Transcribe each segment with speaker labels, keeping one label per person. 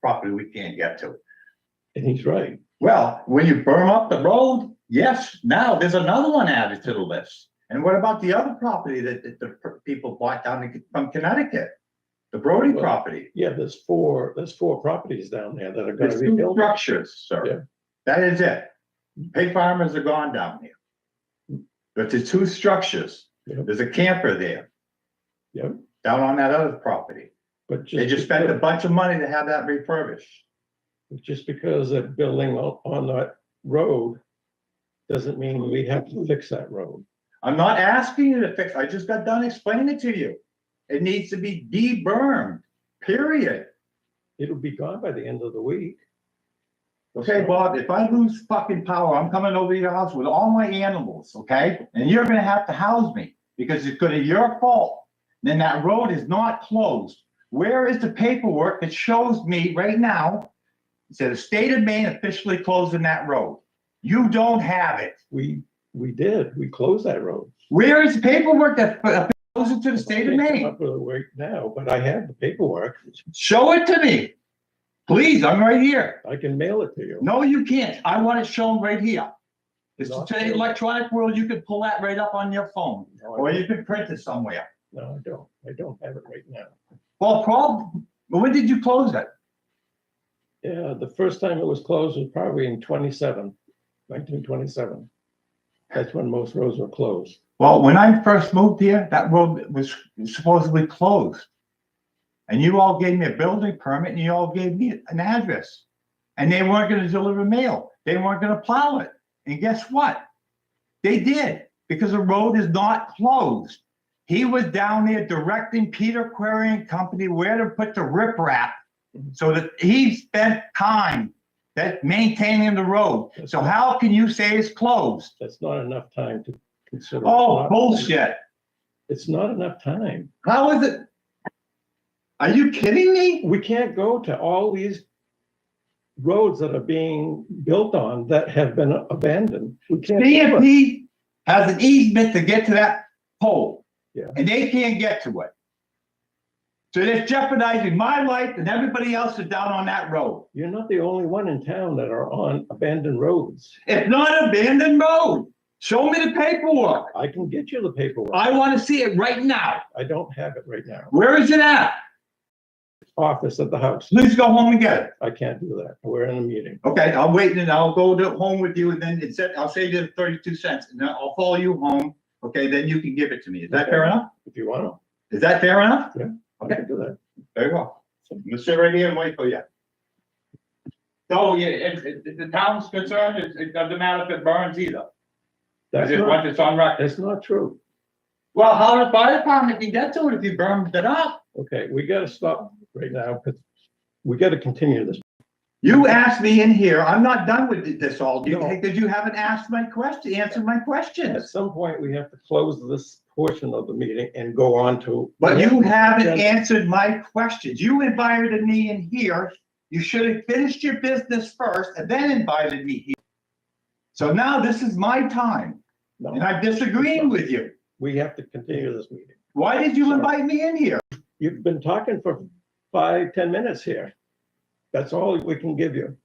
Speaker 1: property we can't get to.
Speaker 2: And he's right.
Speaker 1: Well, when you firm up the road, yes, now there's another one added to the list. And what about the other property that, that the people bought down in- from Connecticut? The Brody
Speaker 2: Well,
Speaker 1: property.
Speaker 2: Yeah, there's four, there's four properties down there that are gonna
Speaker 1: There's
Speaker 2: be
Speaker 1: two
Speaker 2: built.
Speaker 1: structures,
Speaker 2: Yeah.
Speaker 1: sir. That is it. Pig farmers are gone down there. But there's two structures.
Speaker 2: Yeah.
Speaker 1: There's a camper there.
Speaker 2: Yeah.
Speaker 1: Down on that other property.
Speaker 2: But just.
Speaker 1: They just spent a bunch of money to have that refurbished.
Speaker 2: Just because they're building on, on that road doesn't mean we have to fix that road.
Speaker 1: I'm not asking you to fix, I just got done explaining it to you. It needs to be de-bermed, period.
Speaker 2: It'll be gone by the end of the week.
Speaker 1: Okay, Bob, if I lose fucking power, I'm coming over to your house with all my animals, okay? And you're gonna have to house me because it's gonna be your fault. Then that road is not closed. Where is the paperwork that shows me right now? It says the state of Maine officially closing that road. You don't have it.
Speaker 2: We, we did, we closed that road.
Speaker 1: Where is the paperwork that that goes into the state of
Speaker 2: I can't come
Speaker 1: Maine?
Speaker 2: Up with it right now, but I have the paperwork.
Speaker 1: Show it to me. Please, I'm right here.
Speaker 2: I can mail it to you.
Speaker 1: No, you can't. I want it shown right here. It's
Speaker 2: No, I
Speaker 1: today's
Speaker 2: can't.
Speaker 1: electronic world. You can pull that right up on your phone.
Speaker 2: No, I
Speaker 1: Or
Speaker 2: don't.
Speaker 1: you can print it somewhere.
Speaker 2: No, I don't. I don't have it right now.
Speaker 1: Well, problem, when did you close it?
Speaker 2: Yeah, the first time it was closed was probably in 27, 1927. That's when most roads were closed.
Speaker 1: Well, when I first moved here, that road was supposedly closed. And you all gave me a building permit and you all gave me an address. And they weren't gonna deliver mail. They weren't gonna plow it. And guess what? They did, because the road is not closed. He was down there directing Peter Query and Company where to put the riprap. So that he spent time that maintaining the road. So how can you say it's closed?
Speaker 2: That's not enough time to consider.
Speaker 1: Oh, bullshit.
Speaker 2: It's not enough time.
Speaker 1: How is it? Are you kidding me?
Speaker 2: we can't go to all these roads that are being built on that have been abandoned. We can't. do it.
Speaker 1: DMP has an easement to get to that pole.
Speaker 2: Yeah.
Speaker 1: And they can't get to it. So they're jeopardizing my life and everybody else is down on that road.
Speaker 2: You're not the only one in town that are on abandoned roads.
Speaker 1: It's not abandoned road. Show me the paperwork.
Speaker 2: I can get you the paperwork.
Speaker 1: I want to see it right now.
Speaker 2: I don't have it right now.
Speaker 1: Where is it at?
Speaker 2: Office at the house.
Speaker 1: Please go home and get it.
Speaker 2: I can't do that. We're in a meeting.
Speaker 1: Okay, I'll wait and I'll go to home with you and then it's, I'll save you the thirty-two cents and then I'll follow you home. Okay, then you can give it to me. Is that fair enough?
Speaker 2: If you want to,
Speaker 1: Is that fair enough?
Speaker 2: I can do that.
Speaker 1: Very well. I'm gonna sit right here and oh, wait for you. So, yeah, if, if- if the town's concerned, it, it doesn't matter if it burns either, I
Speaker 2: That's
Speaker 1: just
Speaker 2: not,
Speaker 1: want it's on record.
Speaker 2: that's not true.
Speaker 1: Well, how the fire department can get to it if you burned it up?
Speaker 2: Okay, we gotta stop right now because we gotta continue this.
Speaker 1: You asked me in here, I'm not done with this all,
Speaker 2: No.
Speaker 1: because you haven't asked my question, answered my
Speaker 2: At
Speaker 1: questions.
Speaker 2: some point, we have to close this portion of the meeting and go on to.
Speaker 1: But you haven't
Speaker 2: Yeah.
Speaker 1: answered my questions. You invited me in here. You should have finished your business first and then invited me here. So now this is my time.
Speaker 2: No.
Speaker 1: And I'm disagreeing with you.
Speaker 2: we have to continue this meeting.
Speaker 1: Why did you
Speaker 2: Sorry.
Speaker 1: invite me in here?
Speaker 2: You've been talking for five, ten minutes here. That's all we can give you.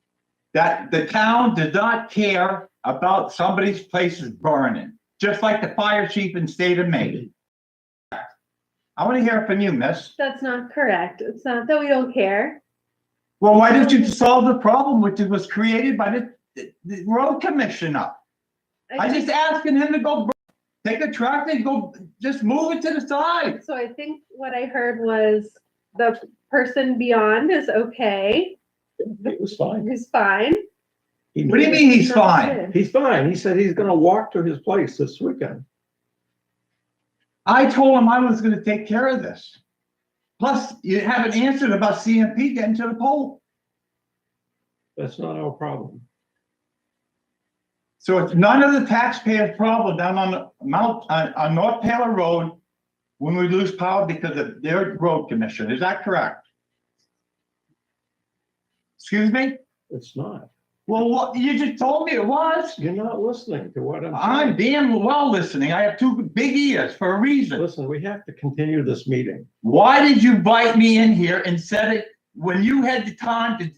Speaker 1: That the town did not care about somebody's place is burning, just like the fire chief in state of Maine. I want to hear from you, miss.
Speaker 3: That's not correct. It's not that we don't care.
Speaker 1: Well, why don't you solve the problem which was created by the- the, the road commissioner? I just asking him to go bur- take a tractor and go, just move it to the side.
Speaker 3: So I think what I heard was the person beyond is okay,
Speaker 2: It was fine.
Speaker 3: who's fine.
Speaker 2: He
Speaker 1: What do you
Speaker 2: knew
Speaker 1: mean he's
Speaker 3: That's
Speaker 1: fine?
Speaker 2: it.
Speaker 3: it.
Speaker 2: He's fine. He said he's gonna walk to his place this weekend.
Speaker 1: I told him I was gonna take care of this. Plus, you haven't answered about CMP getting to the pole.
Speaker 2: That's not our problem.
Speaker 1: So it's none of the taxpayers' problem down on Mount, on, on North Taylor Road when we lose power because of their road commission. Is that correct? Excuse me?
Speaker 2: It's not.
Speaker 1: Well, what, you just told me it was.
Speaker 2: You're not listening to what I'm
Speaker 1: I'm
Speaker 2: saying.
Speaker 1: damn well listening. I have two big ears for a reason.
Speaker 2: Listen, we have to continue this meeting.
Speaker 1: Why did you bite me in here and said it when you had the time to